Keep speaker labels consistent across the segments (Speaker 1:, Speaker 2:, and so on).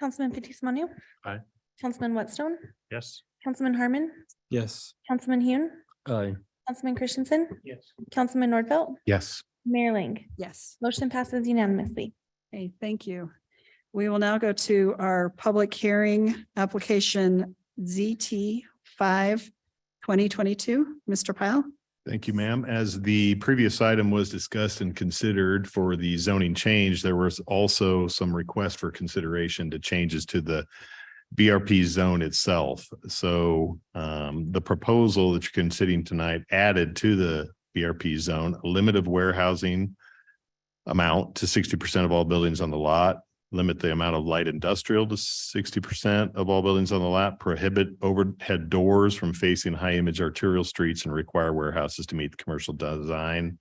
Speaker 1: Councilman Fitzie Umanu.
Speaker 2: Aye.
Speaker 1: Councilman Whitstone,
Speaker 2: Yes.
Speaker 1: Councilman Harmon,
Speaker 3: Yes.
Speaker 1: Councilman Hune,
Speaker 3: Aye.
Speaker 1: Councilman Christensen,
Speaker 2: Yes.
Speaker 1: Councilman Nordfelt,
Speaker 2: Yes.
Speaker 1: Mayor Ling.
Speaker 4: Yes.
Speaker 1: Motion passes unanimously.
Speaker 4: Okay, thank you. We will now go to our public hearing, application ZT 5 2022. Mr. Pyle?
Speaker 5: Thank you, ma'am. As the previous item was discussed and considered for the zoning change, there was also some request for consideration to changes to the BRP zone itself. So um, the proposal that you're considering tonight added to the BRP zone, a limit of warehousing amount to sixty percent of all buildings on the lot, limit the amount of light industrial to sixty percent of all buildings on the lot, prohibit overhead doors from facing high image arterial streets and require warehouses to meet the commercial design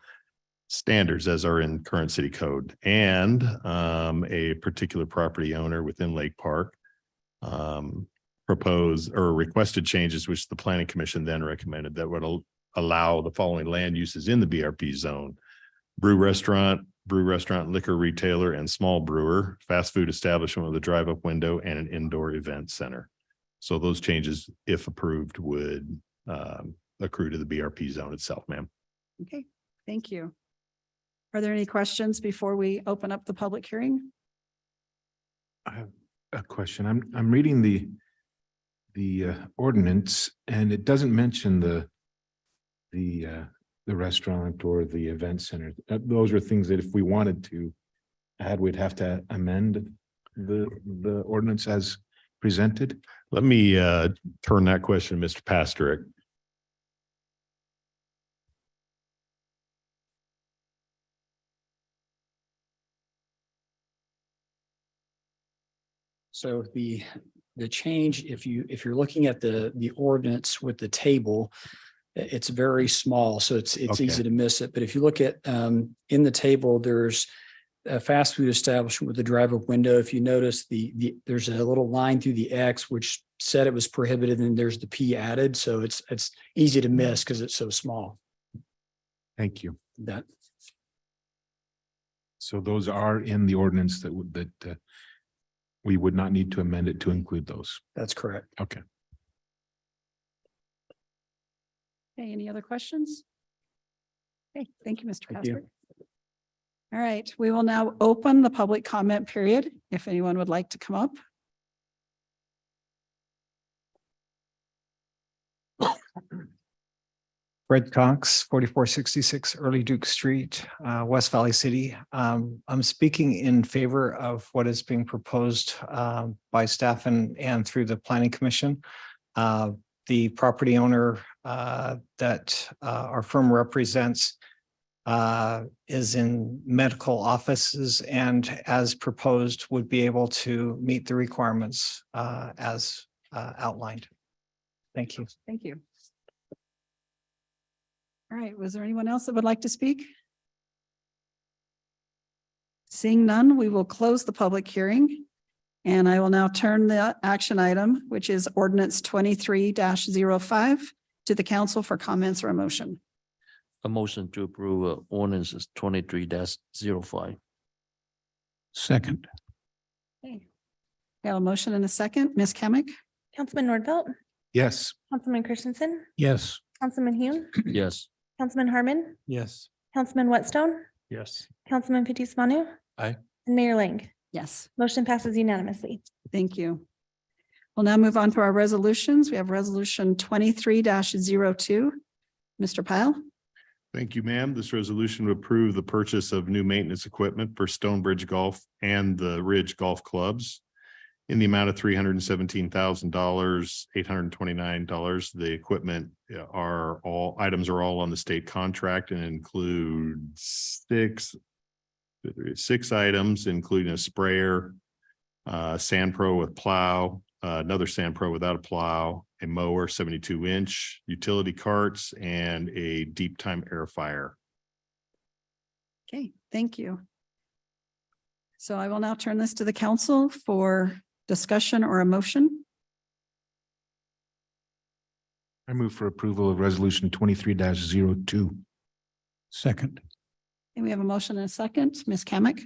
Speaker 5: standards as are in current city code and um, a particular property owner within Lake Park um, propose or requested changes, which the planning commission then recommended that would al- allow the following land uses in the BRP zone. Brew restaurant, brew restaurant, liquor retailer, and small brewer, fast food establishment with a drive-up window and an indoor event center. So those changes, if approved, would um, accrue to the BRP zone itself, ma'am.
Speaker 4: Okay, thank you. Are there any questions before we open up the public hearing?
Speaker 2: I have a question. I'm, I'm reading the, the uh, ordinance and it doesn't mention the, the, uh, the restaurant or the event center. Uh, Those are things that if we wanted to add, we'd have to amend the, the ordinance as presented.
Speaker 5: Let me uh, turn that question to Mr. Pastorick.
Speaker 6: So the, the change, if you, if you're looking at the, the ordinance with the table, i- it's very small, so it's, it's
Speaker 5: Okay.
Speaker 6: easy to miss it. But if you look at, um, in the table, there's a fast food establishment with a drive-up window. If you notice the, the, there's a little line through the X which said it was prohibited and there's the P added. So it's, it's easy to miss
Speaker 7: Mm-hmm.
Speaker 6: because it's so small
Speaker 2: Thank you.
Speaker 6: that,
Speaker 2: So those are in the ordinance that would, that uh, we would not need to amend it to include those.
Speaker 6: that's correct.
Speaker 2: Okay.
Speaker 4: Okay, any other questions? Okay, thank you, Mr.
Speaker 6: Thank you.
Speaker 4: Casper. All right, we will now open the public comment period if anyone would like to come up.
Speaker 8: Fred Cox, forty-four sixty-six Early Duke Street, uh, West Valley City. Um, I'm speaking in favor of what is being proposed um, by staff and, and through the planning commission. Uh, The property owner uh, that uh, our firm represents uh, is in medical offices and as proposed would be able to meet the requirements uh, as uh, outlined. Thank you.
Speaker 4: Thank you. All right, was there anyone else that would like to speak? Seeing none, we will close the public hearing. And I will now turn the action item, which is ordinance twenty-three 5 to the council for comments or a motion.
Speaker 7: A motion to approve uh, ordinances twenty-three dash zero five.
Speaker 2: Second.
Speaker 4: We have a motion and a second. Ms. Kamic?
Speaker 1: Councilman Nordfelt,
Speaker 2: Yes.
Speaker 1: Councilman Christensen,
Speaker 2: Yes.
Speaker 1: Councilman Hune,
Speaker 7: Yes.
Speaker 1: Councilman Harmon,
Speaker 3: Yes.
Speaker 1: Councilman Whitstone,
Speaker 2: Yes.
Speaker 1: Councilman Fitzie Umanu.
Speaker 3: Aye.
Speaker 1: And Mayor Ling.
Speaker 4: Yes.
Speaker 1: Motion passes unanimously.
Speaker 4: Thank you. We'll now move on to our resolutions. We have resolution twenty-three 2 Mr. Pyle?
Speaker 5: Thank you, ma'am. This resolution would approve the purchase of new maintenance equipment for Stonebridge Golf and the Ridge Golf Clubs in the amount of three hundred and seventeen thousand dollars, eight hundred and twenty-nine dollars. The equipment uh, are all, items are all on the state contract and include six six items, including a sprayer, uh, Sand Pro with plow, uh, another Sand Pro without a plow, a mower, seventy-two inch, utility carts, and a deep time air fire.
Speaker 4: Okay, thank you. So I will now turn this to the council for discussion or a motion.
Speaker 2: I move for approval of resolution twenty-three 2 Second.
Speaker 4: And we have a motion and a second. Ms. Kamic?